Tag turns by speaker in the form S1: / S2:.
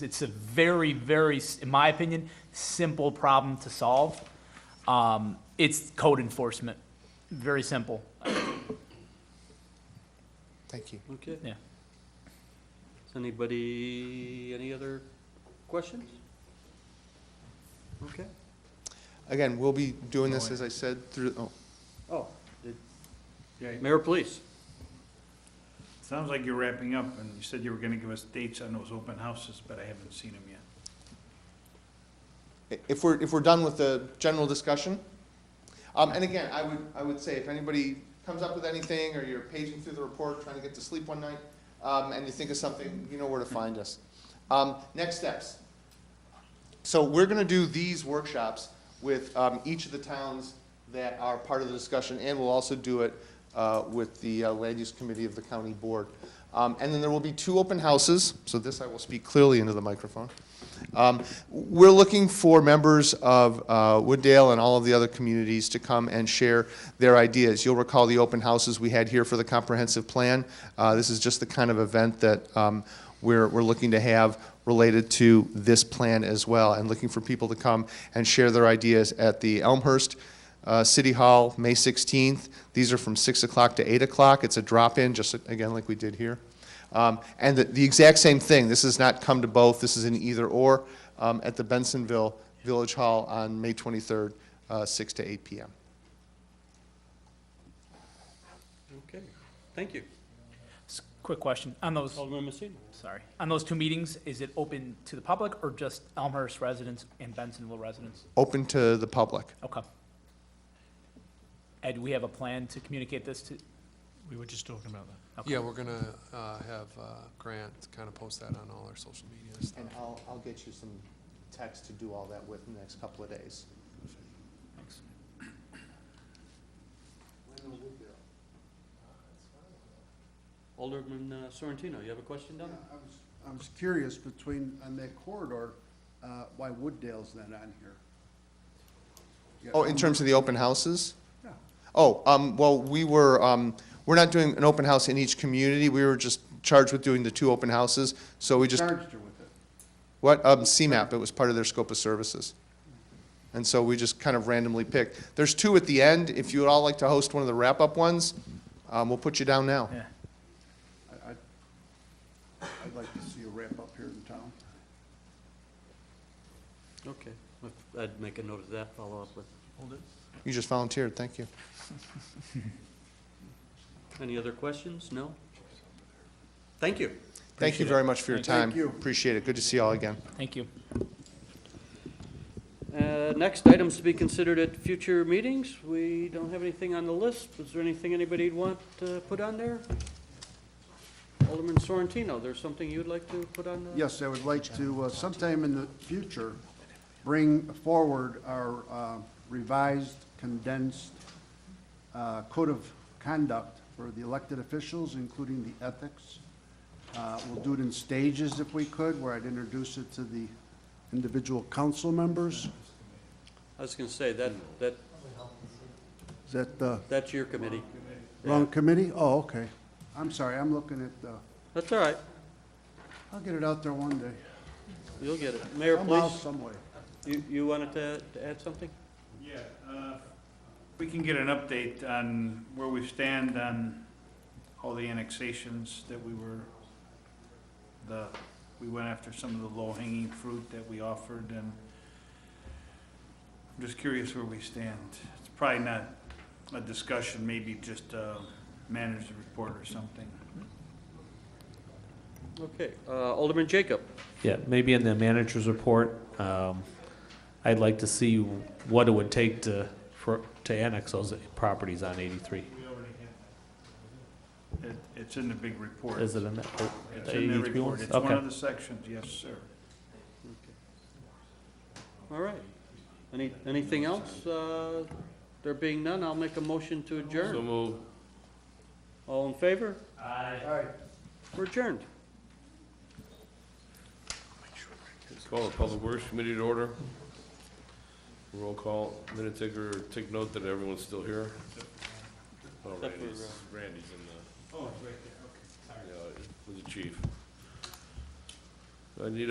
S1: It's a very, very, s- in my opinion, simple problem to solve. Um, It's code enforcement, very simple,
S2: Thank you.
S3: Okay,
S1: yeah.
S3: does anybody, any other questions? Okay,
S2: Again, we'll be doing this, as I said, through, oh,
S3: oh, did-
S4: Okay,
S3: Mayor, please.
S4: sounds like you're wrapping up, and you said you were gonna give us dates on those open houses, but I haven't seen them yet.
S2: i- if we're, if we're done with the general discussion. Um, and again, I would, I would say if anybody comes up with anything, or you're paging through the report, trying to get to sleep one night, um, and you think of something, you know where to find us. Um, next steps. So we're gonna do these workshops with, um, each of the towns that are part of the discussion, and we'll also do it, uh, with the uh, Land Use Committee of the County Board. Um, and then there will be two open houses, so this I will speak clearly into the microphone. Um, We're looking for members of uh, Wooddale and all of the other communities to come and share their ideas. You'll recall the open houses we had here for the comprehensive plan. Uh, This is just the kind of event that um, we're, we're looking to have related to this plan as well, and looking for people to come and share their ideas at the Elmhurst uh, City Hall, May 16th. These are from 6 o'clock to 8 o'clock. It's a drop-in, just again like we did here. Um, And the- the exact same thing, this has not come to both, this is an either-or um, at the Bensonville Village Hall on May 23rd, uh, 6 to 8 PM.
S3: Okay, thank you.
S1: S- Quick question, on those,
S5: Oh,
S3: Alderman Messina.
S1: sorry, on those two meetings, is it open to the public or just Elmhurst residents and Bensonville residents?
S2: Open to the public.
S1: Okay. Ed, we have a plan to communicate this to,
S5: We were just talking about that.
S1: Okay.
S6: Yeah, we're gonna uh, have uh, Grant kind of post that on all our social media and stuff.
S2: And I'll, I'll get you some text to do all that with in the next couple of days.
S1: thanks.
S3: Alderman uh, Sorrentino, you have a question down there?
S7: I was- I was curious between, on that corridor, uh, why Wooddale's not on here? Yeah,
S2: Oh, in terms of the open houses?
S7: yeah.
S2: Oh, um, well, we were, um, we're not doing an open house in each community, we were just charged with doing the two open houses, so we just,
S7: Charged her with it.
S2: what, um, CMAP, it was part of their scope of services. And so we just kind of randomly picked. There's two at the end, if you would all like to host one of the wrap-up ones, um, we'll put you down now.
S1: Yeah.
S7: I, I'd, I'd like to see a wrap up here in town.
S3: Okay, If- I'd make a note of that, follow up with,
S5: Hold it.
S2: You just volunteered, thank you.
S3: any other questions? No? Thank you.
S2: Thank you very much for your time.
S7: Thank you.
S2: Appreciate it, good to see you all again.
S1: Thank you.
S3: Uh, Next items to be considered at future meetings. We don't have anything on the list. Is there anything anybody'd want to put on there? Alderman Sorrentino, there's something you'd like to put on the?
S7: Yes, I would like to, uh, sometime in the future, bring forward our uh, revised condensed uh, code of conduct for the elected officials, including the ethics. Uh, We'll do it in stages if we could, where I'd introduce it to the individual council members.
S3: I was gonna say, that, that,
S7: Is that the
S3: that's your committee.
S7: wrong committee? Oh, okay. I'm sorry, I'm looking at, uh,
S3: That's all right.
S7: I'll get it out there one day.
S3: You'll get it. Mayor,
S7: Somehow,
S3: please,
S7: some way.
S3: you, you wanted to, to add something?
S4: Yeah, uh, we can get an update on where we stand on all the annexations that we were, the, we went after some of the low-hanging fruit that we offered, and I'm just curious where we stand. It's probably not a discussion, maybe just a manager's report or something.
S3: Okay, uh, Alderman Jacob.
S8: Yeah, maybe in the manager's report, um, I'd like to see what it would take to, for, to annex those properties on eighty-three.
S4: It, it's in the big report.
S8: Is it in that?
S4: It's
S8: the
S4: in the
S8: 83
S4: report.
S8: ones?
S4: It's one
S8: Okay.
S4: of the sections, yes, sir.
S3: All right. Any, anything else? Uh, There being none, I'll make a motion to adjourn. So move. All in favor? Aye. We're adjourned.
S9: Call the Public Works Committee to order. Roll call, minute taker, take note that everyone's still here. Oh,
S3: Except for,
S9: Randy's, Randy's in the. Oh, right there, okay. Was the chief. I need a